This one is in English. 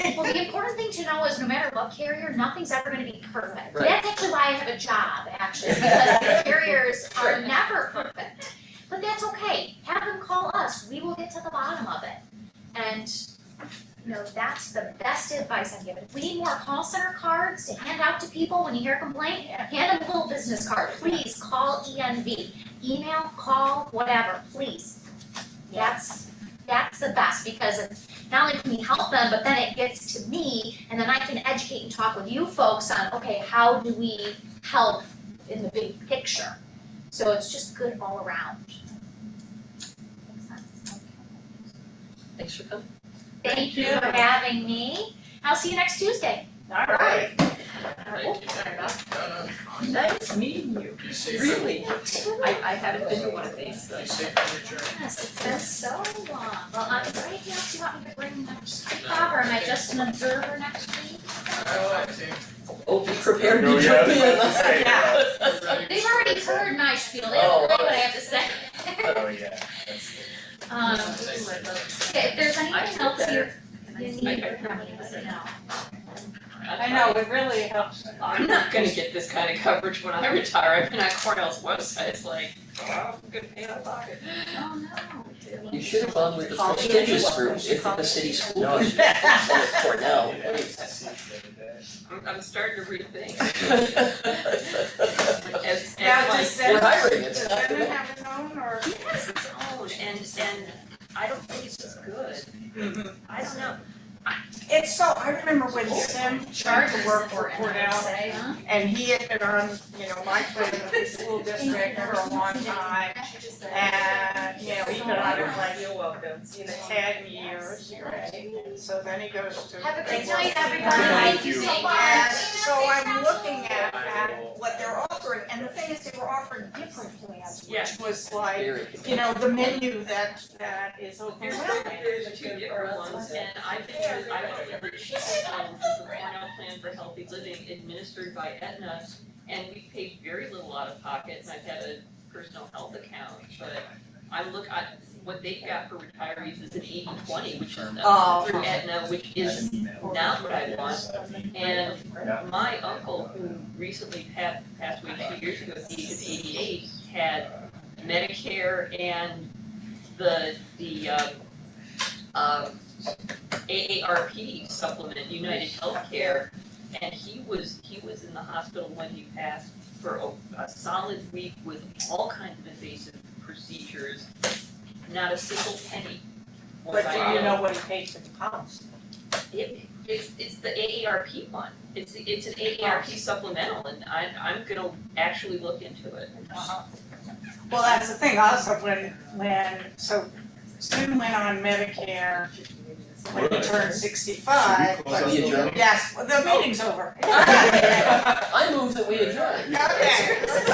the important thing to know is no matter what carrier, nothing's ever gonna be perfect. Right. That's actually why I have a job, actually, because the carriers are never perfect. But that's okay, have them call us, we will get to the bottom of it. And, you know, that's the best advice I've given. If we need more call center cards to hand out to people when you hear a complaint, hand them a little business card, please call ENV. Email, call, whatever, please. That's, that's the best, because it's not only can we help them, but then it gets to me, and then I can educate and talk with you folks on, okay, how do we help in the big picture? So it's just good all around. Makes sense. Thanks for coming. Thank you for having me. I'll see you next Tuesday. All right. Thank you. Sorry about No, no. Nice meeting you. Be safe. Really, I, that. I haven't been to one of these, so. Be safe on your journey. Yes, it's been so long. Well, I'm right here, do you want me to bring my stuff, or am I just an observer next week? Oh, I see. Oh, be prepared to No, jump in. yeah, I was about to say, Yeah. They've already heard my spiel, they don't know what I have to say. Oh, yeah, that's, Um, okay, if there's I anything feel else you, better. you I- I need, feel let me better. know. I know, it really helps a lot. I'm not gonna get this kind of coverage when I retire, I've been on Cornell's website, it's like, wow, good pay out of pocket. Oh, no. You should have gone with the Call me prestigious anyway. group, if at the city school No, you district, instead of Cornell. yeah, it's the other day. I'm, I'm starting to rethink. We're As, Now, as like, does that- hiring, it's Does not Venom good. have his own or? he has his own, and, and I don't think it's as good, I don't know. It's so, I remember when Sim tried to work for Cornell Huh? and he had been on, you know, my plan with the school district for a long time. And, you know, he got out of like, you're welcome, you know, ten years, right? And So then he goes to. Have a they great night, work- everybody. Thank you. Thank And you. so I'm looking at, at what they're offering, and the thing is, they were offering different plans, Yeah. which was like, Very you know, the menu that, that is overwhelming. There's two different ones, and I think there's, I remember she had, um, the Cornell Plan for Healthy Living administered by Aetna, and we paid very little out of pocket, and I've had a personal health account, but I look, I, what they've got for retirees is an eighty twenty, which is uh, Oh. through Aetna, which I is had an email. not what I want. Yes, I mean, And Yeah. my uncle, who recently passed, passed away two years ago, at the age of eighty-eight, had Medicare and the, the, um, um, AARP supplement, United Healthcare. And he was, he was in the hospital when he passed for a, a solid week with all kinds of invasive procedures. Not a single penny was But I do you know what he paid for the policy? it, it's, it's the AARP one, it's, it's an AARP supplemental, and I, I'm gonna actually look into it. Uh-huh. Well, that's the thing also when, when, so Sim went on Medicare when he turned sixty-five, Close out but, you the adjourn? link. yes, well, the meeting's over. I move that we adjourn. Okay.